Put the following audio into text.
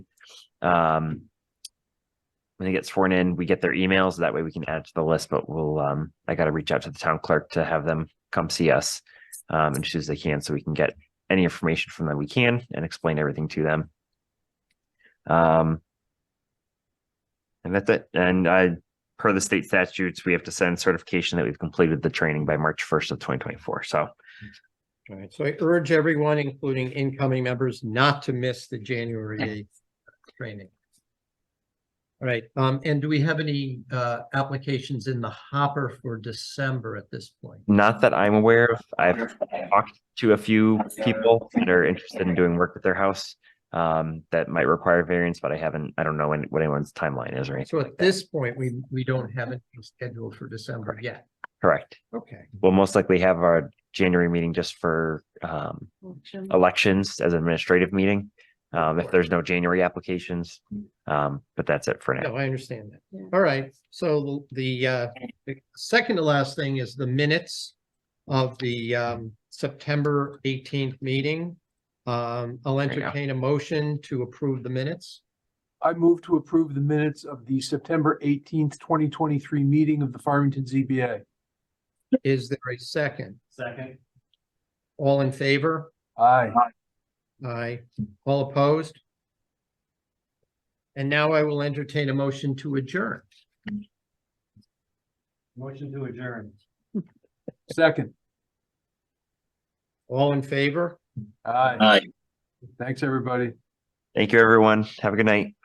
Um, when it gets sworn in, we get their emails. That way we can add it to the list, but we'll, um, I got to reach out to the town clerk to have them come see us. Um, and as they can, so we can get any information from them we can and explain everything to them. Um. And that's it. And I, per the state statutes, we have to send certification that we've completed the training by March first of twenty twenty-four. So All right, so I urge everyone, including incoming members, not to miss the January eighth training. All right, um, and do we have any uh applications in the hopper for December at this point? not that I'm aware of, I've talked to a few people that are interested in doing work at their house. Um, that might require variance, but I haven't, I don't know when, what anyone's timeline is or anything. So at this point, we, we don't have it scheduled for December Correct. yet. Correct. Okay, We'll most likely have our January meeting just for, um, elections as an administrative meeting. Um, if there's no January applications, um, but that's it for no, now. I understand Yeah. that. All right, so the uh, the second to last thing is the minutes of the um September eighteenth meeting. Um, I'll you go. entertain a motion to approve the minutes. I move to approve the minutes of the September eighteenth, twenty twenty-three meeting of the Farmington ZBA. Is there a second? Second. All in favor? Aye. Aye. All opposed? And now I will entertain a motion to adjourn. Motion to adjourn. Second. All in favor? Aye. Aye. Thanks, everybody. Thank you, everyone. Have a good night.